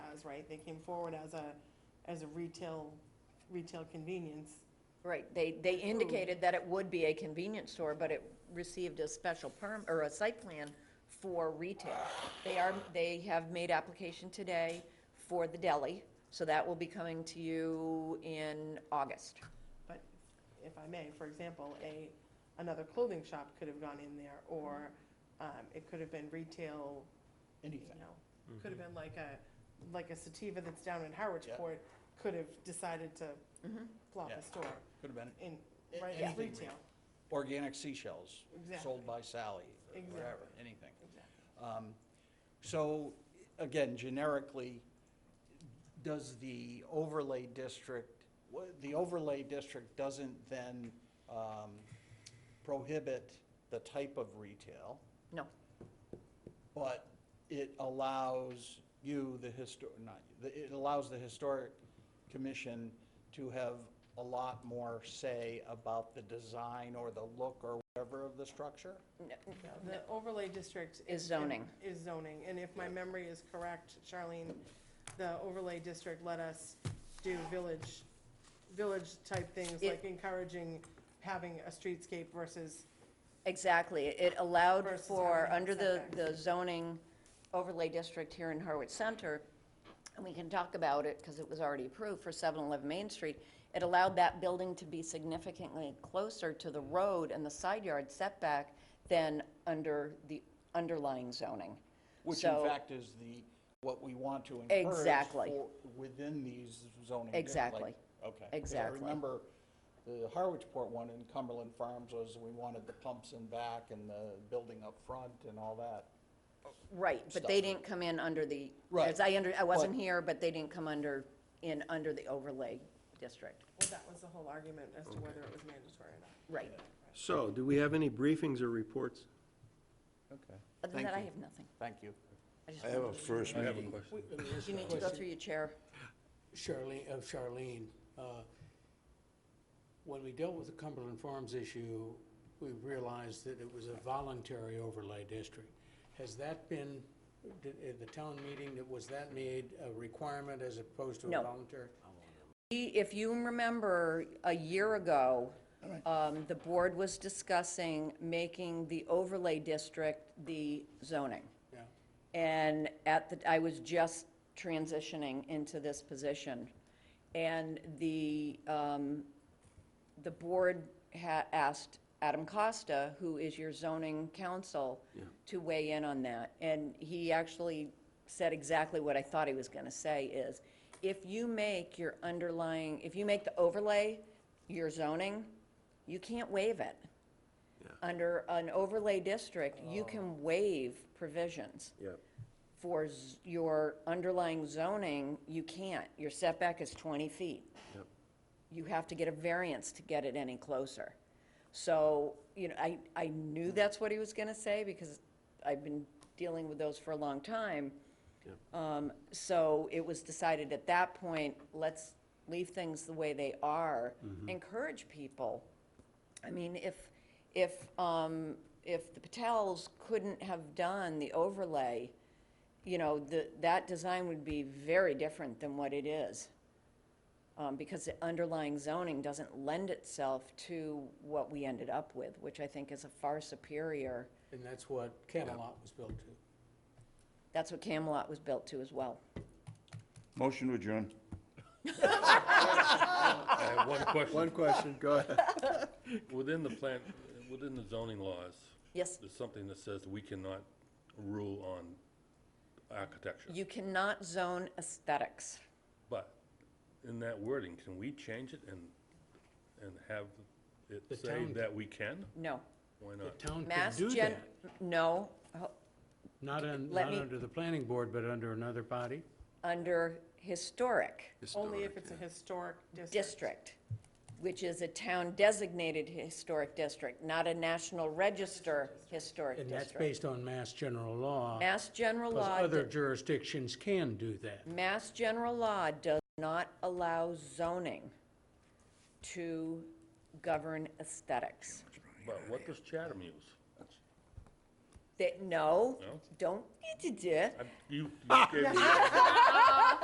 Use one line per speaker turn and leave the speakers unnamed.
is, right? They came forward as a, as a retail, retail convenience.
Right, they, they indicated that it would be a convenience store, but it received a special perm, or a site plan for retail. They are, they have made application today for the deli, so that will be coming to you in August.
But if I may, for example, a, another clothing shop could have gone in there, or um, it could have been retail, you
anything.
know, could have been like a, like a sativa that's down in Howard's
Yeah.
Court, could have decided to
Mhm.
plop
Yeah.
a store
Could have been
in,
A-
right, as
anything
retail.
organic seashells
Exactly.
sold by Sally, or whatever,
Exactly.
anything.
Exactly.
Um, So, again, generically, does the overlay district, wha- the overlay district doesn't then um, prohibit the type of retail,
No,
but it allows you, the historic, not, you, the- it allows the historic commission to have a lot more say about the design or the look or whatever of the structure?
The overlay district.
Is zoning.
Is zoning, and if my memory is correct, Charlene, the overlay district let us do village, village-type things,
It-
like encouraging having a streetscape versus,
exactly, it allowed
Versus
for,
having
under the,
setbacks.
the zoning overlay district here in Harwich Center, and we can talk about it, because it was already approved for 711 Main Street, it allowed that building to be significantly closer to the road and the side yard setback than under the underlying zoning.
Which in
So-
fact is the, what we want to encourage.
Exactly.
for- Within these zoning. districts, like-
Exactly.
Okay. 'Cause
Exactly.
I remember the Harwichport one in Cumberland Farms was, we wanted the pumps in back and the building up front and all that.
Right, but they
Stuff.
didn't come in under the,
Right.
as I under, I wasn't
But-
here, but they didn't come under, in under the overlay district.
well, that was the whole argument as to whether it was mandatory or not.
Right.
So, do we have any briefings or reports?
Okay.
Other than that, I have nothing.
Thank you.
just
I have a first meeting.
You need to go through your chair.
Charlene, of Charlene, uh, when we dealt with the Cumberland Farms issue, we realized that it was a voluntary overlay district. Has that been, did, at the town meeting, that was that made a requirement as opposed to
No.
a voluntary?
We- If you remember, a year ago, um, the board was discussing making the overlay district the zoning.
No.
And at the, I was just transitioning into this position. And the, um, the board ha asked Adam Costa, who is your zoning counsel, to weigh in on that. And he actually said exactly what I thought he was gonna say is, if you make your underlying, if you make the overlay your zoning, you can't waive it. Under an overlay district, you can waive provisions
Yeah.
for z- your underlying zoning, you can't. Your setback is 20 feet.
Yep.
You have to get a variance to get it any closer. So, you know, I, I knew that's what he was going to say because I've been dealing with those for a long time. Um, So it was decided at that point, let's leave things the way they are, encourage people I mean, if, if, um, if the Patels couldn't have done the overlay, you know, the, that design would be very different than what it is. Um, because the underlying zoning doesn't lend itself to what we ended up with, which I think is a far superior.
And that's what Camelot was built to.
That's what Camelot was built to as well.
Motion to adjourn.
I have one
One
question.
question, go ahead.
Within the plant, within the zoning laws,
Yes,
there's something that says we cannot rule on architecture.
you cannot zone aesthetics.
But in that wording, can we change it and, and have it
The
say
town-
that we can?
No.
Why
The
not?
town
Mass
could do
gen,
that,
no, Ho-
not un-
Let
not
me-
under the planning board, but under another body.
under historic.
Only if it's a historic district.
district, which is a town designated historic district, not a national register historic
And that's
district.
based on mass general law.
Mass general
Because
law,
other
d-
jurisdictions can do that.
mass general law does not allow zoning to govern aesthetics.
But what does Chatham use?
That, no,
No?
don't, Ah,
I- You, you gave me.